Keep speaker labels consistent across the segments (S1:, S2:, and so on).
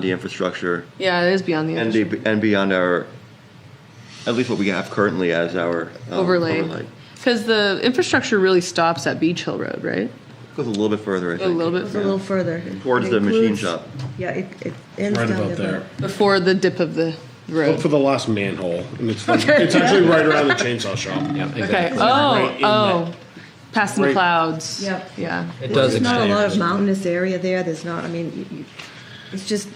S1: the infrastructure
S2: Yeah, it is beyond the
S1: and,
S2: industry.
S1: the, and beyond our, at least what we have currently as our um,
S2: overlay. Because the infrastructure really stops at Beach Hill Road, right?
S1: Goes a little bit further, I
S2: A
S1: think.
S2: little
S3: Goes
S2: bit
S3: a little further. It
S1: Towards the machine
S3: includes-
S1: shop.
S3: Yeah, it, it ends
S4: Right
S3: down
S4: about there.
S2: before the dip of the
S4: Look
S2: road.
S4: for the last manhole, and it's
S2: Okay.
S4: it's actually right around the chainsaw shop.
S5: Yeah,
S2: Okay.
S5: exactly.
S2: Oh,
S4: Right in
S2: oh. Past the
S4: Right-
S2: clouds.
S3: Yep.
S2: Yeah.
S5: It
S3: Well,
S5: does
S3: There's not a
S5: extend.
S3: lot of mountainous area there, there's not, I mean, you- you- it's just,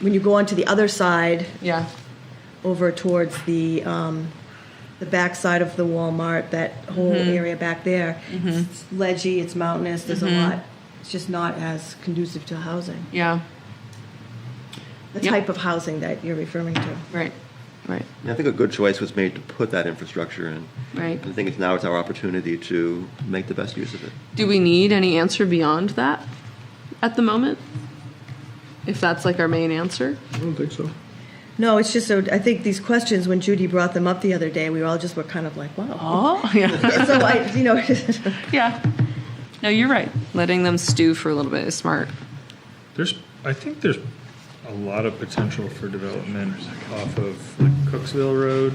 S3: when you go onto the other side,
S2: Yeah.
S3: over towards the, um, the backside of the Walmart, that whole area back there, it's ledgy, it's mountainous, there's a lot, it's just not as conducive to housing,
S2: Yeah.
S3: the
S2: Yep.
S3: type of housing that you're referring to.
S2: Right. Right.
S1: And I think a good choice was made to put that infrastructure in.
S2: Right.
S1: I think it's now it's our opportunity to make the best use of it.
S2: Do we need any answer beyond that at the moment? If that's like our main answer?
S4: I don't think so.
S3: No, it's just, so I think these questions, when Judy brought them up the other day, we all just were kind of like, wow.
S2: Oh, yeah.
S3: So I, you know,
S2: yeah. No, you're right. Letting them stew for a little bit is smart.
S6: There's, I think there's a lot of potential for development off of like Cooksville Road.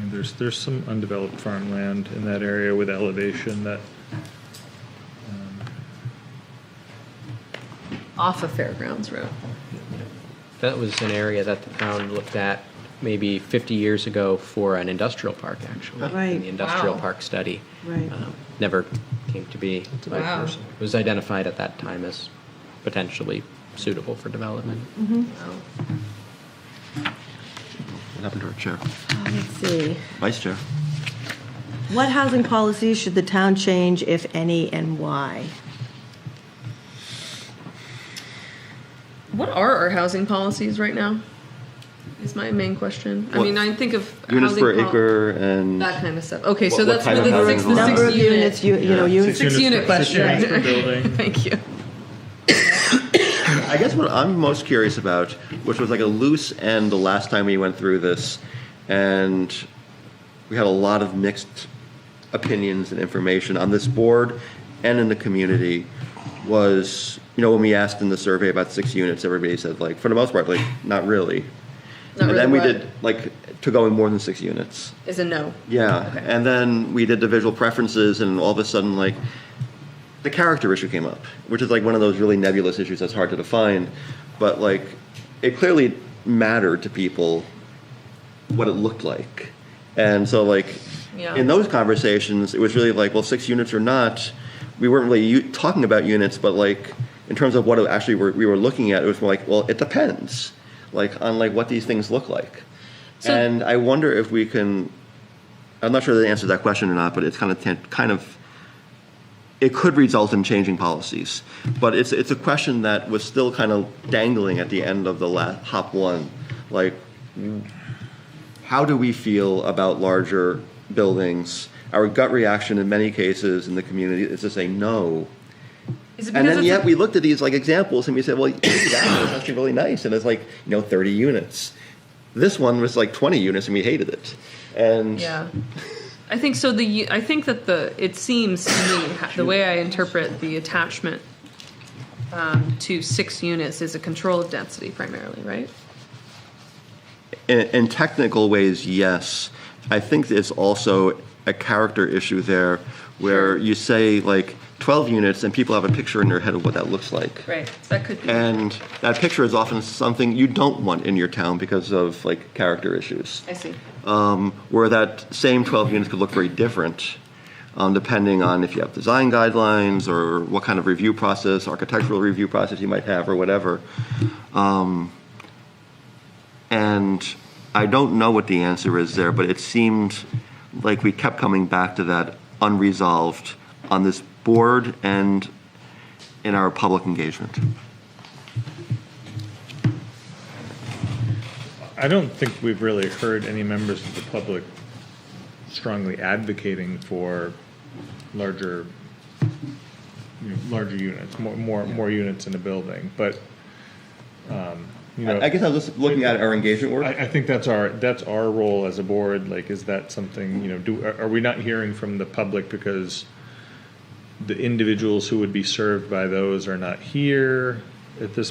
S6: And there's, there's some undeveloped farmland in that area with elevation that,
S2: Off of Fairgrounds Road.
S5: That was an area that the town looked at maybe 50 years ago for an industrial park, actually.
S3: Right.
S5: In the industrial
S7: Wow.
S5: park study.
S3: Right.
S5: Um, Never came to be. but
S7: Wow.
S5: It was identified at that time as potentially suitable for development.
S1: What happened to our chair?
S3: let's see.
S1: Vice chair.
S3: What housing policies should the town change, if any, and why?
S2: What are our housing policies right now? Is my main question. I
S1: What-
S2: mean, I think of
S1: Units
S2: housing
S1: per
S2: pol-
S1: acre and
S2: that kind of stuff. Okay, so
S1: What- what
S2: that's
S1: type
S2: with
S1: of
S2: the
S1: housing
S2: six, the
S1: allowed?
S2: six
S3: Number of units, you you know, units.
S2: Six unit
S6: per- six
S2: question.
S6: units per building.
S2: Thank you.
S1: I guess what I'm most curious about, which was like a loose end the last time we went through this, and we had a lot of mixed opinions and information on this board and in the community, was you know when we asked in the survey about six units, everybody said like for the most part like not really,
S2: Not
S1: and then we
S2: really
S1: did like to going more than six units.
S2: Is a no.
S1: Yeah, and then we did the visual preferences, and all of a sudden, like, the character issue came up, which is like one of those really nebulous issues that's hard to define, but like, it clearly mattered to people what it looked like, and so like,
S2: Yeah.
S1: in those conversations, it was really like, well, six units or not, we weren't really u- talking about units, but like, in terms of what it actually were, we were looking at, it was more like, well, it depends, like, on like what these things look like.
S2: So-
S1: and I wonder if we can I'm not sure the answer to that question or not, but it's kind of tan- kind of it could result in changing policies. But it's it's a question that was still kind of dangling at the end of the last hop one, like how do we feel about larger buildings? Our gut reaction in many cases in the community is to say no.
S2: Is it
S1: And then
S2: it's
S1: yet
S2: a-
S1: we looked at these like examples and we said, well, that one's actually really nice, and it's like you know 30 units. This one was like 20 units, and we hated it. And
S2: Yeah. I think so. The I think that the it seems to me ha- the way I interpret the attachment um, to six units is a control of density primarily, right?
S1: In, in technical ways, yes. I think it's also a character issue there where you say like 12 units and people have a picture in their head of what that looks like.
S2: Right. That could be.
S1: And that picture is often something you don't want in your town because of like character issues.
S2: I see.
S1: Um, where that same 12 units could look very different um, depending on if you have design guidelines or what kind of review process, architectural review process you might have or whatever. Um, And I don't know what the answer is there, but it seemed like we kept coming back to that unresolved on this board and in our public engagement.
S6: I don't think we've really heard any members of the public strongly advocating for larger, you know, larger units, more, more, more units in a building, but, um, you know.
S1: I guess I was just looking at our engagement work.
S6: I, I think that's our, that's our role as a board, like, is that something, you know, do, are are we not hearing from the public because the individuals who would be served by those are not here? at this